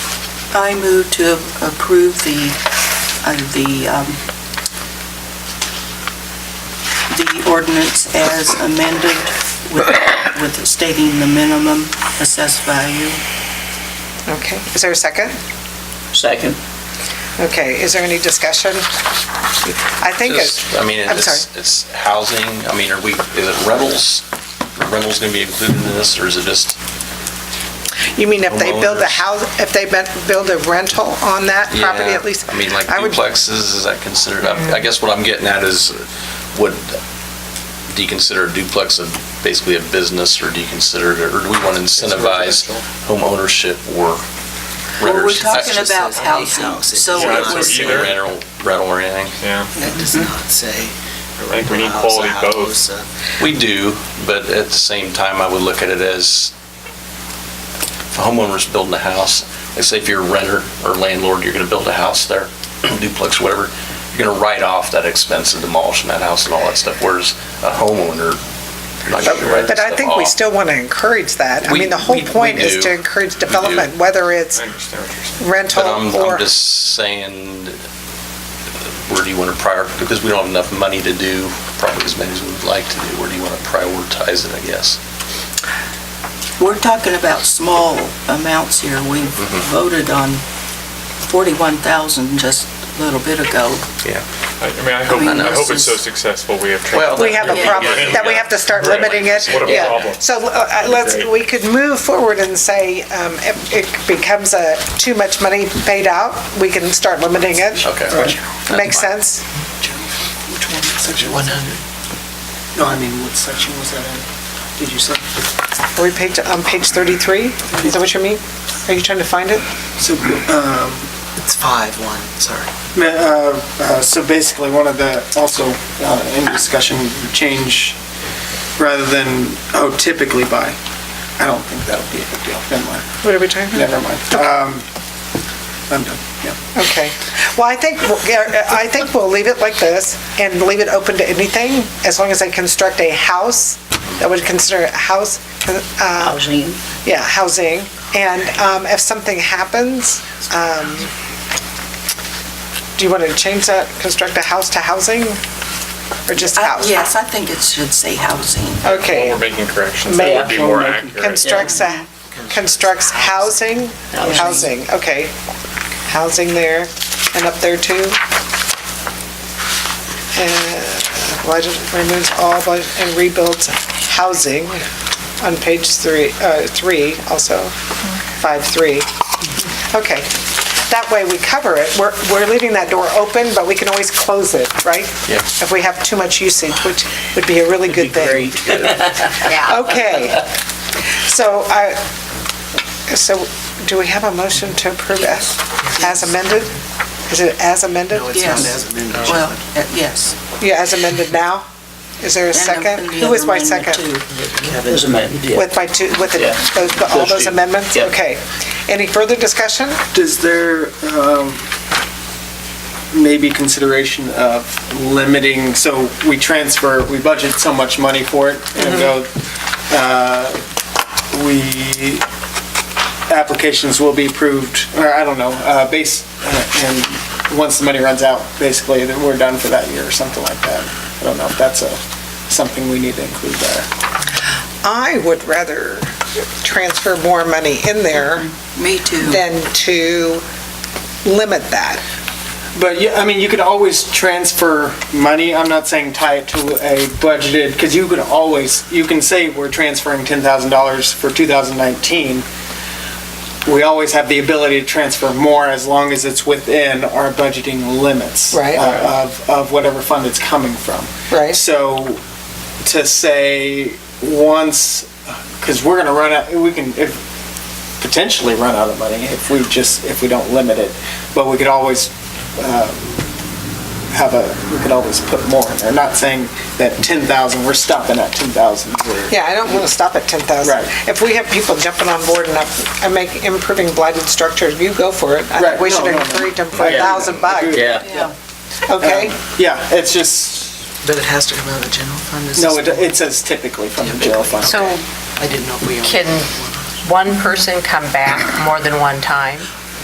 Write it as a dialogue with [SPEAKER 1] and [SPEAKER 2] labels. [SPEAKER 1] I move to approve the, uh, the, um, the ordinance as amended with, with stating the minimum assessed value.
[SPEAKER 2] Okay, is there a second?
[SPEAKER 3] Second.
[SPEAKER 2] Okay, is there any discussion? I think it's,
[SPEAKER 4] Just, I mean,
[SPEAKER 2] I'm
[SPEAKER 4] it's, it's housing, I mean, are we, is it rentals? Are rentals going to be included in this, or is it just,
[SPEAKER 2] you mean if they build a
[SPEAKER 4] homeowners.
[SPEAKER 2] house, if they be- build a rental on that property
[SPEAKER 4] Yeah,
[SPEAKER 2] at least?
[SPEAKER 4] I mean, like
[SPEAKER 2] would-
[SPEAKER 4] duplexes, is that considered, I I guess what I'm getting at is, would, do you consider a duplex a, basically a business, or do you consider, it- or do we want to incentivize home ownership or
[SPEAKER 1] Well, we're
[SPEAKER 4] renters?
[SPEAKER 1] talking
[SPEAKER 5] just
[SPEAKER 1] about
[SPEAKER 5] says any
[SPEAKER 1] housing,
[SPEAKER 5] house. It
[SPEAKER 1] so
[SPEAKER 5] does
[SPEAKER 1] it
[SPEAKER 5] not
[SPEAKER 1] was,
[SPEAKER 5] say-
[SPEAKER 4] Either rental, rental or anything.
[SPEAKER 6] Yeah,
[SPEAKER 5] That does not say.
[SPEAKER 6] I think we need
[SPEAKER 5] house,
[SPEAKER 6] quality
[SPEAKER 5] a
[SPEAKER 6] both.
[SPEAKER 5] house, uh,
[SPEAKER 4] We do, but at the same time, I would look at it as if a homeowner's building a house, let's say if you're a renter or landlord, you're gonna build a house there, duplex, whatever, you're gonna write off that expense of demolishing that house and all that stuff, whereas a homeowner, you're not gonna write that
[SPEAKER 2] But I
[SPEAKER 4] stuff
[SPEAKER 2] think we
[SPEAKER 4] off.
[SPEAKER 2] still want to encourage that. I
[SPEAKER 4] We-
[SPEAKER 2] mean, the whole
[SPEAKER 4] we- we
[SPEAKER 2] point is
[SPEAKER 4] do.
[SPEAKER 2] to encourage
[SPEAKER 4] We do.
[SPEAKER 2] development, whether it's
[SPEAKER 6] I understand what you're saying.
[SPEAKER 2] rental
[SPEAKER 4] But I'm,
[SPEAKER 2] or,
[SPEAKER 4] I'm just saying, uh, where do you wanna prior, because we don't have enough money to do probably as many as we'd like to do, where do you wanna prioritize it, I guess?
[SPEAKER 1] we're talking about small amounts here. We voted on 41,000 just a little bit ago.
[SPEAKER 6] I I mean, I hope,
[SPEAKER 1] I know,
[SPEAKER 6] I hope it's so
[SPEAKER 1] since-
[SPEAKER 6] successful we have.
[SPEAKER 4] Well,
[SPEAKER 6] trouble.
[SPEAKER 2] we have a
[SPEAKER 1] Yeah.
[SPEAKER 2] problem, that we have to start limiting it.
[SPEAKER 6] What a
[SPEAKER 2] Yeah.
[SPEAKER 6] problem.
[SPEAKER 2] So uh, let's, we could move forward and say, um, if it becomes a, too much money paid out, we can start limiting it.
[SPEAKER 4] Okay.
[SPEAKER 2] Makes sense?
[SPEAKER 5] Which one, section 100? No, I mean, what section was that in? Did you say?
[SPEAKER 2] Are we page, on page 33? Is that what you mean? Are you trying to find it?
[SPEAKER 7] So, um,
[SPEAKER 5] It's 5-1, sorry.
[SPEAKER 7] ma- uh, uh, so basically, one of the, also uh, in discussion, change, rather than, oh, typically by, I don't think that'll be a big deal, never mind,
[SPEAKER 2] What are we talking about?
[SPEAKER 7] never mind. Um, I'm done, yeah.
[SPEAKER 2] Okay. Well, I think, we'll- yeah, I think we'll leave it like this and leave it open to anything, as long as they construct a house that would consider a house, uh,
[SPEAKER 8] housing.
[SPEAKER 2] yeah, housing. And um, if something happens, um, do you want to change that, construct a house to housing? Or just
[SPEAKER 1] I-
[SPEAKER 2] house?
[SPEAKER 1] Uh, Yes, I think it should say housing.
[SPEAKER 2] Okay.
[SPEAKER 6] While we're making corrections, that would be more accurate.
[SPEAKER 2] Constructs, a- constructs housing, housing, okay. Housing there and up there too. And why does- removes all but- and rebuilds housing on page three, uh, three also, five, three. Okay, that way we cover it. We're, we're leaving that door open, but we can always close it, right?
[SPEAKER 4] Yeah.
[SPEAKER 2] If we have too much usage, which would be a really good thing. Okay. So I, so do we have a motion to approve as as amended? Is it as amended?
[SPEAKER 5] No, it's not
[SPEAKER 1] Yes.
[SPEAKER 5] as amended.
[SPEAKER 1] Well, uh, yes.
[SPEAKER 2] Yeah, as amended now? Is there a second?
[SPEAKER 1] And the
[SPEAKER 2] Who was
[SPEAKER 1] other
[SPEAKER 2] my
[SPEAKER 1] amendment,
[SPEAKER 2] second?
[SPEAKER 1] too.
[SPEAKER 3] There's amendment, yeah.
[SPEAKER 2] With my two, with the-
[SPEAKER 3] Yeah.
[SPEAKER 2] those- all
[SPEAKER 3] Those
[SPEAKER 2] those
[SPEAKER 3] two.
[SPEAKER 2] amendments?
[SPEAKER 3] Yeah.
[SPEAKER 2] Okay. Any further discussion?
[SPEAKER 7] Does there, um, maybe consideration of limiting, so we transfer, we budget so much money for it, and go, uh, we, applications will be approved, or I don't know, uh, base, uh, and once the money runs out, basically, then we're done for that year or something like that. I don't know if that's a, something we need to include there.
[SPEAKER 2] I would rather transfer more money in there
[SPEAKER 1] Me too.
[SPEAKER 2] than to limit that.
[SPEAKER 7] But yeah, I mean, you could always transfer money. I'm not saying tie it to a budgeted, because you could always, you can say we're transferring ten thousand dollars for two thousand nineteen. We always have the ability to transfer more as long as it's within our budgeting limits.
[SPEAKER 2] Right.
[SPEAKER 7] uh, Of, of whatever fund it's coming from.
[SPEAKER 2] Right.
[SPEAKER 7] So to say once, because we're gonna run out, we can if- potentially run out of money if we just, if we don't limit it. But we could always um, have a, we could always put more in there. Not saying that 10,000, we're stopping at 10,000. We're-
[SPEAKER 2] Yeah, I don't want to stop at 10,000.
[SPEAKER 7] Right.
[SPEAKER 2] If we have people jumping on board and up, and make, improving blighted structures, you go for it. I think
[SPEAKER 7] Right,
[SPEAKER 2] we
[SPEAKER 7] no,
[SPEAKER 2] should
[SPEAKER 7] no, no.
[SPEAKER 2] encourage them for
[SPEAKER 7] Yeah.
[SPEAKER 2] 1,000 bucks,
[SPEAKER 3] Yeah.
[SPEAKER 1] Yeah.
[SPEAKER 2] okay?
[SPEAKER 7] Yeah, it's just,
[SPEAKER 5] But it has to come out of the general fund? is
[SPEAKER 7] no, it
[SPEAKER 5] this-
[SPEAKER 7] it says typically from the jail fund.
[SPEAKER 9] So
[SPEAKER 5] I didn't know if we. owned
[SPEAKER 9] Can-
[SPEAKER 5] one.
[SPEAKER 9] one person come back more than one time?